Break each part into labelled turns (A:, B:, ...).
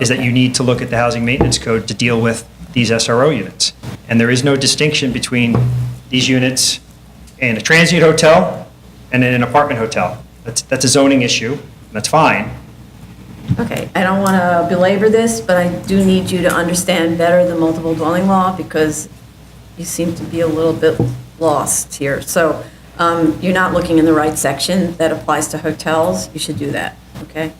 A: is that you need to look at the housing maintenance code to deal with these SRO units. And there is no distinction between these units and a transient hotel and an apartment hotel. That's, that's a zoning issue, that's fine.
B: Okay, I don't want to belabor this, but I do need you to understand better the multiple dwelling law because you seem to be a little bit lost here. So um, you're not looking in the right section that applies to hotels. You should do that, okay?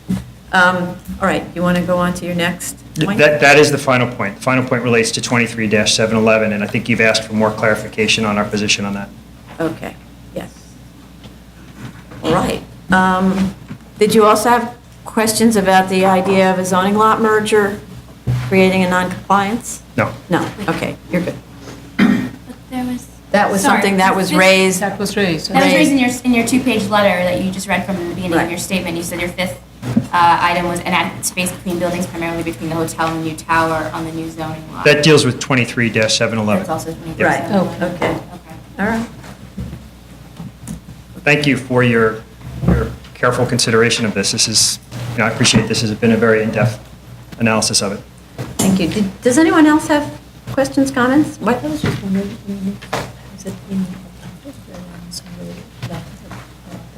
B: Um, All right, you want to go on to your next point?
A: That, that is the final point. The final point relates to 23-711, and I think you've asked for more clarification on our position on that.
B: Okay, yes. All right. Um, Did you also have questions about the idea of a zoning lot merger creating a noncompliance?
A: No.
B: No, okay, you're good.
C: But There was.
B: That was
C: Sorry.
B: something that was raised,
D: That was raised.
C: That was
B: raised-
C: raised in your, in your two-page letter that you just read from the beginning
B: Right.
C: of your statement. You said your fifth uh, item was inadequate space between buildings, primarily between the hotel and the new tower on the new zoning law.
A: That deals with 23-711.
C: That's also 20%.
B: Right. Oh, okay.
C: Okay.
B: all right.
A: thank you for your, your careful consideration of this. This is, you know, I appreciate this has been a very in-depth analysis of it.
B: Thank you. Did- Does anyone else have questions, comments? What?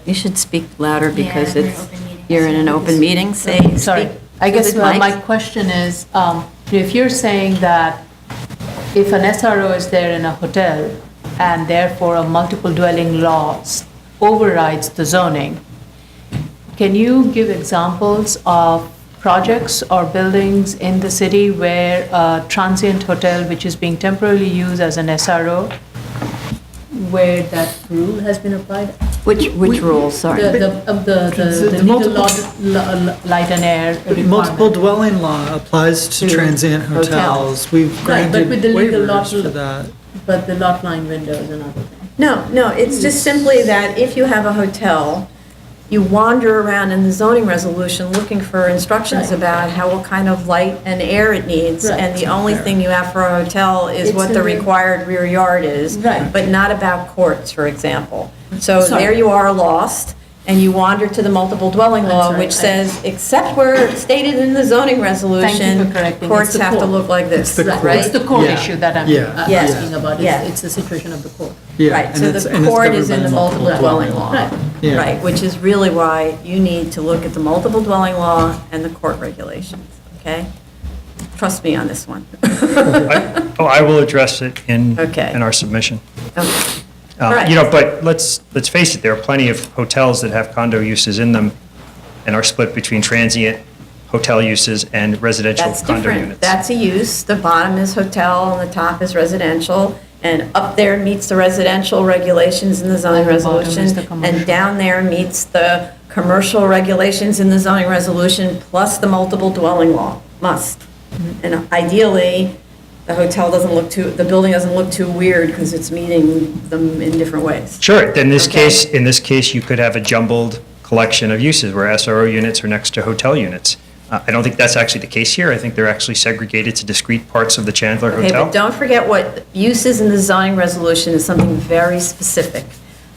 B: You should speak louder
C: Yeah,
B: because
C: we're
B: it's,
C: open meeting.
B: you're in an open meeting, say,
D: Sorry,
B: speak.
D: I guess
B: through the
D: my,
B: mic.
D: my question is, um, if you're saying that if an SRO is there in a hotel and therefore a multiple dwelling laws overrides the zoning, can you give examples of projects or buildings in the city where a transient hotel, which is being temporarily used as an SRO, where that rule has been applied?
B: Which, which rule,
D: The,
B: sorry?
D: the, of the, the- the
E: The
D: legal
E: multiple-
D: law, la- la- light and air requirement.
E: Multiple dwelling law applies to
B: To
E: transient
B: hotels.
E: hotels. We've
D: Right, but
E: granted
D: with the legal lot-
E: waivers for that.
D: But the lot line windows and other things.
B: No, no, it's just simply that if you have a hotel, you wander around in the zoning resolution looking for instructions
D: Right.
B: about how, what kind of light and air it needs,
D: Right.
B: and the only thing you have for a hotel is
D: It's
B: what
D: in
B: the
D: the-
B: required rear yard is.
D: Right.
B: But not about courts, for example. So
D: Sorry.
B: there you are lost, and you wander to the multiple dwelling
D: I'm
B: law,
D: sorry,
B: which
D: I-
B: says, except where stated in the zoning resolution.
D: correcting. It's
B: Courts
D: the
B: have to
D: court.
B: look like this,
E: the
B: right?
E: court.
D: It's the court
E: Yeah.
D: issue that I'm
E: Yeah.
D: I'm
B: Yeah.
D: Uh, asking about,
B: Yeah.
D: it's, it's the situation of the court.
E: Yeah,
B: Right,
E: and
B: so
E: it's-
B: the
E: and it's
B: court is in
E: governed
B: the
E: by
B: multiple dwelling law.
D: Right.
E: Yeah.
B: Right, which is really why you need to look at the multiple dwelling law and the court regulations, okay? Trust me on this one.
A: I- Oh, I will address it in,
B: Okay.
A: in our submission.
B: Okay.
A: Uh,
B: Right.
A: You know, but let's, let's face it, there are plenty of hotels that have condo uses in them and are split between transient hotel uses and residential
B: That's
A: condo
B: different.
A: units.
B: That's a use. The bottom is hotel and the top is residential. And up there meets the residential regulations in the zoning
D: And the bottom is
B: resolution.
D: the
B: And
D: commercial.
B: down there meets the commercial regulations in the zoning resolution, plus the multiple dwelling law, must.
D: Mm-hmm.
B: And ideally, the hotel doesn't look too, the building doesn't look too weird because it's meeting them in different ways.
A: Sure, then in this
B: Okay.
A: case, in this case, you could have a jumbled collection of uses where SRO units are next to hotel units. Uh, I don't think that's actually the case here. I think they're actually segregated to discrete parts of the Chandler
B: Okay,
A: Hotel.
B: but don't forget what uses in the zoning resolution is something very specific.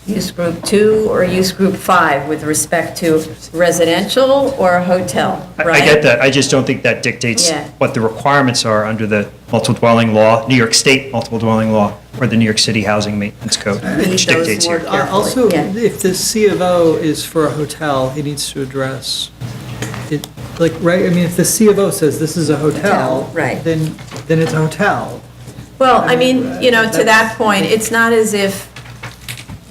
B: Use group two or use group five with respect to residential or hotel,
A: I-
B: right?
A: I get that, I just don't think that dictates
B: Yeah.
A: what the requirements are under the multiple dwelling law, New York State multiple dwelling law, or the New York City Housing Maintenance Code,
B: Read
A: which
B: those
A: dictates here.
B: words.
E: Uh, Also,
B: Carefully,
E: if the C of O is for a hotel, he needs to address it, like, right, I mean, if the C of O says this is a hotel.
B: Hotel, right.
E: Then, then it's a hotel.
B: Well, I mean, you know, to that point, it's not as if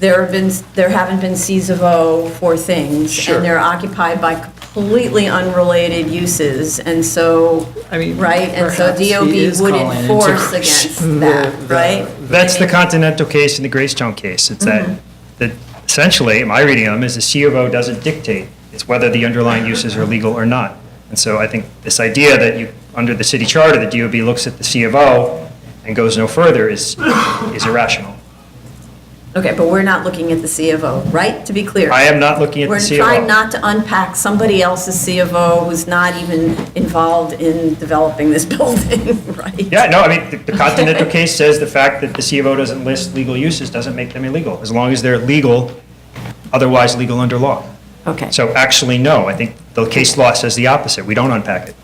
B: there have been, there haven't been Cs of O for things.
A: Sure.
B: And they're occupied by completely unrelated uses, and so,
E: I mean,
B: right? And so
E: perhaps he
B: DOB
E: is
B: would
E: calling into
B: enforce
E: question
B: against that,
E: the- the-
B: right?
A: That's
B: I
A: the
B: mean-
A: Continental case and the Greystone case. It's that,
B: Mm-hmm.
A: that essentially, my reading of them is the C of O doesn't dictate. It's whether the underlying uses are legal or not. And so I think this idea that you, under the city charter, the DOB looks at the C of O and goes no further is, is irrational.
B: Okay, but we're not looking at the C of O, right? To be clear.
A: I am not looking at the
B: We're
A: C of O.
B: trying not to unpack somebody else's C of O who's not even involved in developing this building, right?
A: Yeah, no, I mean, the- the Continental case says the fact that the C of O doesn't list legal uses doesn't make them illegal, as long as they're legal, otherwise legal under law.
B: Okay.
A: So actually, no, I think the case law says the opposite. We don't unpack it.